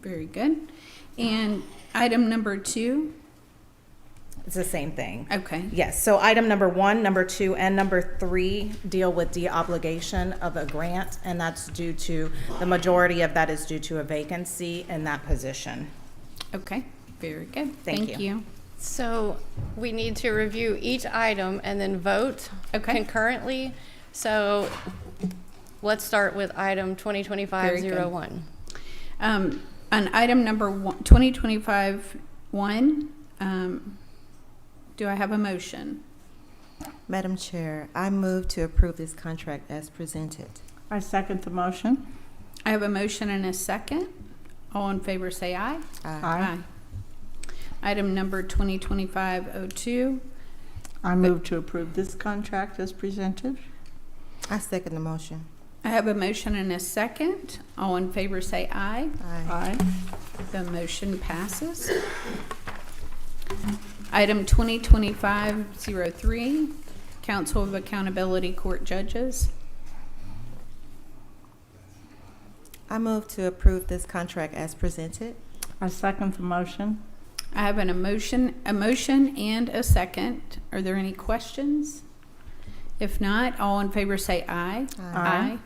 Very good. And item number two, It's the same thing. okay, Yes, so item number one, number two, and number three deal with the obligation of a grant, and that's due to, the majority of that is due to a vacancy in that position. okay, very good. Thank you. So we need to review each item and then vote Okay. concurrently. So let's start with item Very good. 2025-01. Um, on item number one, twenty twenty-five one, um, do I have a motion? Madam Chair, I move to approve this contract as presented. I second the motion. I have a motion and a second. All in favor, say aye. Aye. Aye. Item number twenty twenty-five oh two. I move to approve this contract as presented. I second the motion. I have a motion and a second. All in favor, say aye. Aye. Aye. The motion passes. Item 2025-03, Council of Accountability Court Judges. I move to approve this contract as presented. I second the motion. I have an emotion, a motion and a second. Are there any questions? If not, all in favor say aye. Aye.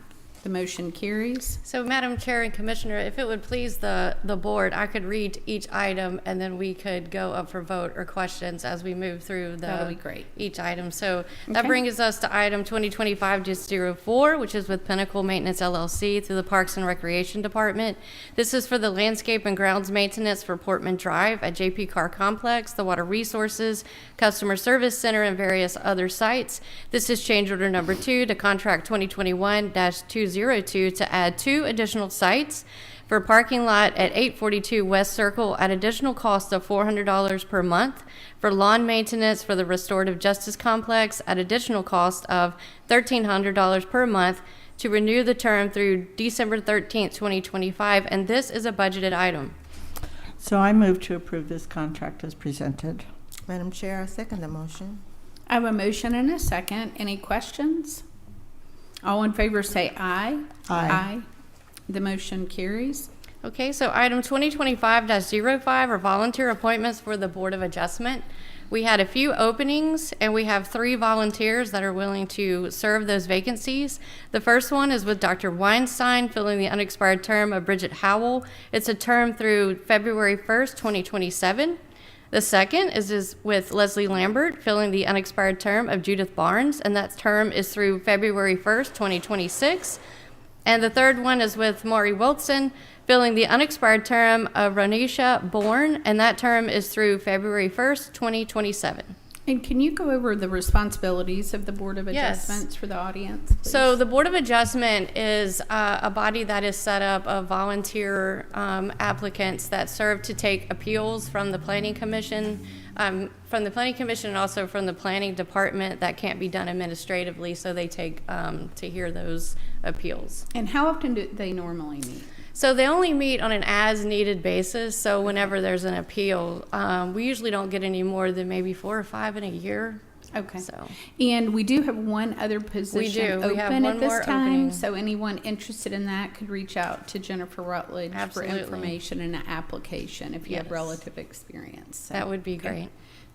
The motion carries. So Madam Chair and Commissioner, if it would please the, the board, I could read each item and then we could go up for vote or questions as we move through the. That'll be great. Each item. So that Okay. brings us to item 2025-04, which is with Pinnacle Maintenance LLC through the Parks and Recreation Department. This is for the landscape and grounds maintenance for Portman Drive at JP Car Complex, the Water Resources, Customer Service Center, and various other sites. This is change order number two to contract 2021-202 to add two additional sites for parking lot at 842 West Circle at additional cost of $400 per month, for lawn maintenance for the Restorative Justice Complex at additional cost of $1,300 per month, to renew the term through December 13th, 2025, and this is a budgeted item. So I move to approve this contract as presented. Madam Chair, I second the motion. I have a motion and a second. Any questions? All in favor say aye. Aye. The motion carries. Okay, so item 2025-05 are volunteer appointments for the Board of Adjustment. We had a few openings, and we have three volunteers that are willing to serve those vacancies. The first one is with Dr. Weinstein, filling the unexpired term of Bridget Howell. It's a term through February 1st, 2027. The second is, is with Leslie Lambert, filling the unexpired term of Judith Barnes, and that term is through February 1st, 2026. And the third one is with Maury Wilson, filling the unexpired term of Ronisha Bourne, and that term is through February 1st, 2027. And can you go over the responsibilities of the Board of Yes. Adjustments for the audience? please? So the Board of Adjustment is uh, a body that is set up of volunteer um, applicants that serve to take appeals from the Planning Commission, um, from the Planning Commission and also from the Planning Department that can't be done administratively, so they take um, to hear those appeals. And how often do they normally meet? So they only meet on an as-needed basis. So whenever there's an appeal, um, we usually don't get any more than maybe four or five in a year. Okay. So And we do have one other position do. We have open one at this more time, opening. so anyone interested in that could reach out to Jennifer Rutledge for Absolutely. information and an application if you have Yes. relative experience. So, that would be okay. great.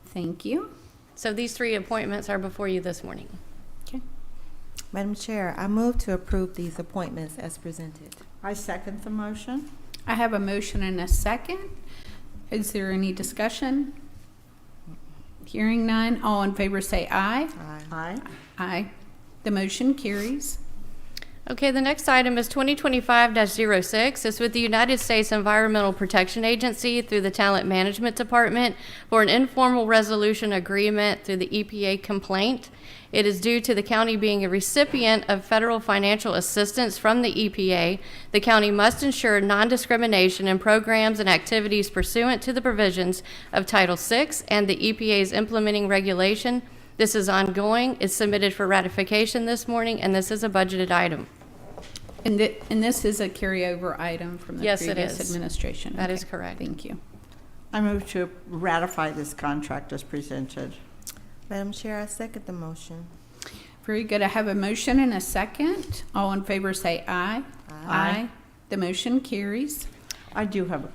Thank you. So these three appointments are before you this morning. Madam Chair, I move to approve these appointments as presented. I second the motion. I have a motion and a second. Is there any discussion? Hearing none, all in favor say aye. Aye. Aye. Aye. The motion carries. Okay, the next item is 2025-06. It's with the United States Environmental Protection Agency through the Talent Management Department for an informal resolution agreement through the EPA complaint. It is due to the county being a recipient of federal financial assistance from the EPA. The county must ensure non-discrimination in programs and activities pursuant to the provisions of Title VI and the EPA's implementing regulation. This is ongoing. It's submitted for ratification this morning, and this is a budgeted item. And thi- and this is a carryover item from the Yes, it previous is. administration. That is Okay. correct. Thank you. I move to ratify this contract as presented. Madam Chair, I second the motion. Very good. I have a motion and a second. All in favor say aye. Aye. The motion carries. I do have a